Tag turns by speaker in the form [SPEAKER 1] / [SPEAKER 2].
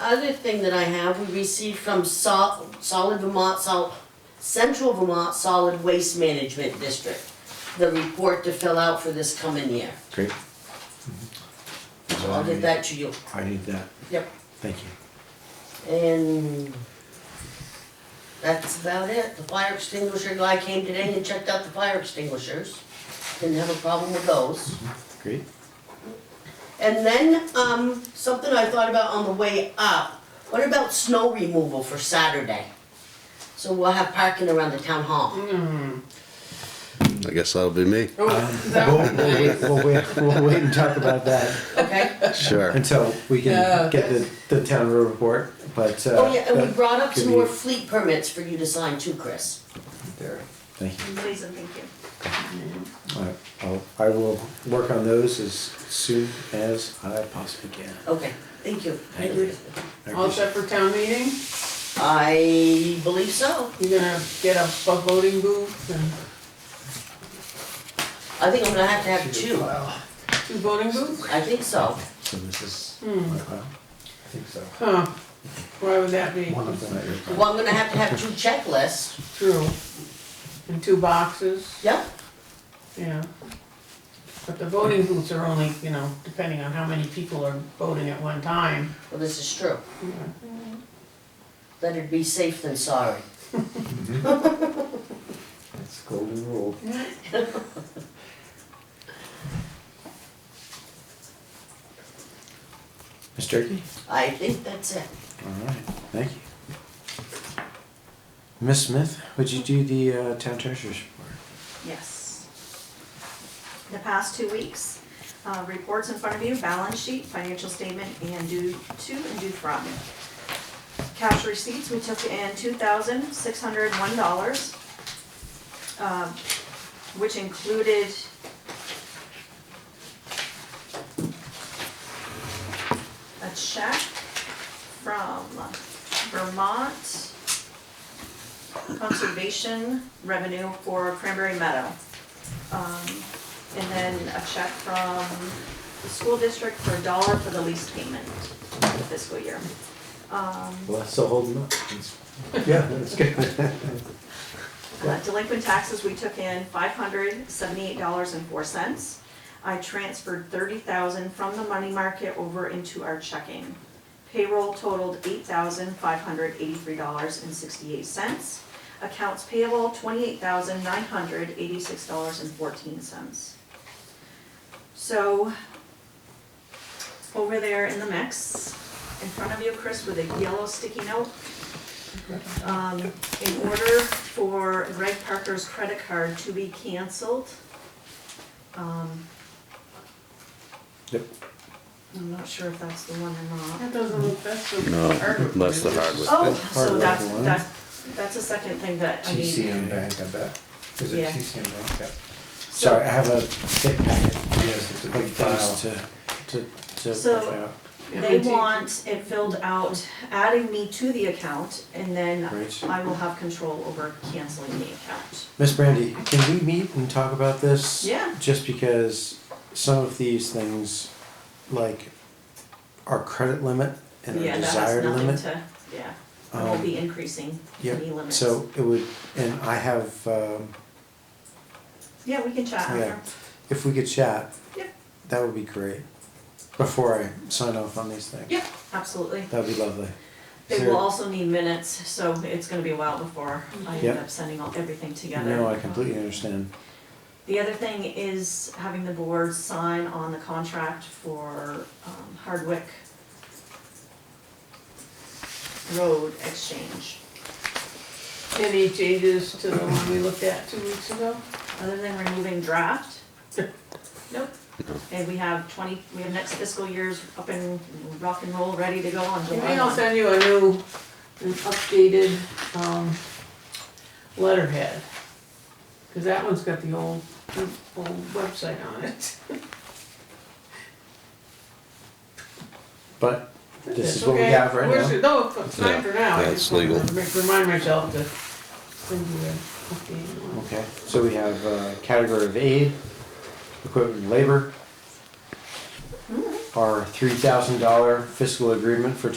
[SPEAKER 1] Other thing that I have, we received from Sol- Solid Vermont, Sol- Central Vermont Solid Waste Management District, the report to fill out for this coming year.
[SPEAKER 2] Great.
[SPEAKER 1] So I'll get that to you.
[SPEAKER 2] I need that,
[SPEAKER 1] Yep.
[SPEAKER 2] thank you.
[SPEAKER 1] And that's about it. The fire extinguisher guy came today and checked out the fire extinguishers. Didn't have a problem with those.
[SPEAKER 2] Great.
[SPEAKER 1] And then, um, something I thought about on the way up, what about snow removal for Saturday? So we'll have parking around the town hall.
[SPEAKER 3] I guess that'll be me.
[SPEAKER 4] Oh,
[SPEAKER 2] We'll,
[SPEAKER 4] that
[SPEAKER 2] we'll wait, we'll wait, we'll wait and talk about that
[SPEAKER 1] Okay?
[SPEAKER 3] Sure.
[SPEAKER 2] until we
[SPEAKER 4] Yeah.
[SPEAKER 2] can get the, the town road report, but, uh.
[SPEAKER 1] Oh, yeah, and we
[SPEAKER 2] that-
[SPEAKER 1] brought up some
[SPEAKER 2] could
[SPEAKER 1] more
[SPEAKER 2] be-
[SPEAKER 1] fleet permits for you to sign too, Chris.
[SPEAKER 2] There, thank you.
[SPEAKER 5] Please and thank you.
[SPEAKER 2] All right, I'll, I will work on those as soon as I possibly can.
[SPEAKER 1] Okay, thank you.
[SPEAKER 2] Thank you. I
[SPEAKER 4] All
[SPEAKER 2] appreciate
[SPEAKER 4] set for town meeting?
[SPEAKER 1] I believe so.
[SPEAKER 4] You're gonna get a bu- voting booth and
[SPEAKER 1] I think I'm gonna have to have
[SPEAKER 2] it.
[SPEAKER 1] two.
[SPEAKER 2] Wow.
[SPEAKER 4] two voting booths?
[SPEAKER 1] I think so.
[SPEAKER 2] So this is.
[SPEAKER 4] Hmm.
[SPEAKER 2] my file? I think so.
[SPEAKER 4] Huh, why would that be?
[SPEAKER 2] One of them at your file.
[SPEAKER 1] Well, I'm gonna have to have two checklists.
[SPEAKER 4] True. And two boxes,
[SPEAKER 1] Yep.
[SPEAKER 4] yeah. But the voting booths are only, you know, depending on how many people are voting at one time.
[SPEAKER 1] Well, this is true. Better be safe than sorry.
[SPEAKER 2] That's the golden rule. Ms. Turkey?
[SPEAKER 1] I think that's it.
[SPEAKER 2] All right, thank you. Ms. Smith, would you do the uh, town treasurer's report?
[SPEAKER 5] Yes. The past two weeks, uh, reports in front of you, balance sheet, financial statement, and due to and due from. Cash receipts, we took in two thousand six hundred one dollars, um, which included a check from Vermont conservation revenue for Cranberry Meadow. Um, And then a check from the school district for a dollar for the lease payment for the fiscal year. Um,
[SPEAKER 2] Well, that's still holding up. Yeah, that's good.
[SPEAKER 5] Uh, Delinquent taxes, we took in five hundred seventy-eight dollars and four cents. I transferred thirty thousand from the money market over into our checking. Payroll totaled eight thousand five hundred eighty-three dollars and sixty-eight cents. Accounts payable, twenty-eight thousand nine hundred eighty-six dollars and fourteen cents. So, over there in the mix, in front of you, Chris, with a yellow sticky note, um, in order for Greg Parker's credit card to be canceled. Um,
[SPEAKER 2] Yep.
[SPEAKER 5] I'm not sure if that's the one or not.
[SPEAKER 4] That doesn't look, that's the
[SPEAKER 3] No,
[SPEAKER 4] hardwood.
[SPEAKER 3] that's the hardwood.
[SPEAKER 5] Oh,
[SPEAKER 2] Part
[SPEAKER 5] so
[SPEAKER 2] of
[SPEAKER 5] that's,
[SPEAKER 2] the one.
[SPEAKER 5] that's, that's a second thing that I need.
[SPEAKER 2] TCM Bank, I bet. Is it
[SPEAKER 5] Yeah.
[SPEAKER 2] TCM Bank? Yep. Sorry, I have a thick packet. Yes, it's a big file. To, to, to.
[SPEAKER 5] So-
[SPEAKER 2] fill out.
[SPEAKER 5] They want it filled out, adding me to the account, and then
[SPEAKER 2] Great.
[SPEAKER 5] I will have control over canceling the account.
[SPEAKER 2] Miss Brandy, can we meet and talk about this?
[SPEAKER 5] Yeah.
[SPEAKER 2] Just because some of these things, like our credit limit and
[SPEAKER 5] Yeah,
[SPEAKER 2] our
[SPEAKER 5] that has
[SPEAKER 2] desired
[SPEAKER 5] nothing
[SPEAKER 2] limit.
[SPEAKER 5] to, yeah, I will
[SPEAKER 2] Um,
[SPEAKER 5] be increasing
[SPEAKER 2] yeah,
[SPEAKER 5] any limits.
[SPEAKER 2] So it would, and I have, um,
[SPEAKER 5] Yeah, we can chat
[SPEAKER 2] yeah,
[SPEAKER 5] after.
[SPEAKER 2] if we could chat,
[SPEAKER 5] Yep,
[SPEAKER 2] that would be great. Before I sign off on these things.
[SPEAKER 5] yep, absolutely.
[SPEAKER 2] That'd be lovely.
[SPEAKER 5] They
[SPEAKER 2] Is
[SPEAKER 5] will
[SPEAKER 2] there-
[SPEAKER 5] also need minutes, so it's gonna be a while before I end
[SPEAKER 2] Yep.
[SPEAKER 5] up sending all, everything together.
[SPEAKER 2] No, I completely understand.
[SPEAKER 5] The other thing is having the board sign on the contract for um, Hardwick Road Exchange.
[SPEAKER 4] Any changes to the one we looked at two weeks ago?
[SPEAKER 5] Other than removing draft, nope. And we have twenty, we have next fiscal year's up and rock and roll, ready to go on
[SPEAKER 4] Maybe
[SPEAKER 5] July
[SPEAKER 4] I'll
[SPEAKER 5] one.
[SPEAKER 4] send you a new, an updated, um, letterhead. Cause that one's got the old, old website on it.
[SPEAKER 2] But this
[SPEAKER 4] That's
[SPEAKER 2] is what we
[SPEAKER 4] okay.
[SPEAKER 2] have right
[SPEAKER 4] We're
[SPEAKER 2] now.
[SPEAKER 4] s- No, it's- it's fine for now. I
[SPEAKER 3] Yeah, it's
[SPEAKER 4] just wanted to
[SPEAKER 3] legal.
[SPEAKER 4] make- Remind myself to send you an updated one.
[SPEAKER 2] Okay, so we have uh, category of aid, equipment and labor. Our three thousand dollar fiscal agreement for 2023-24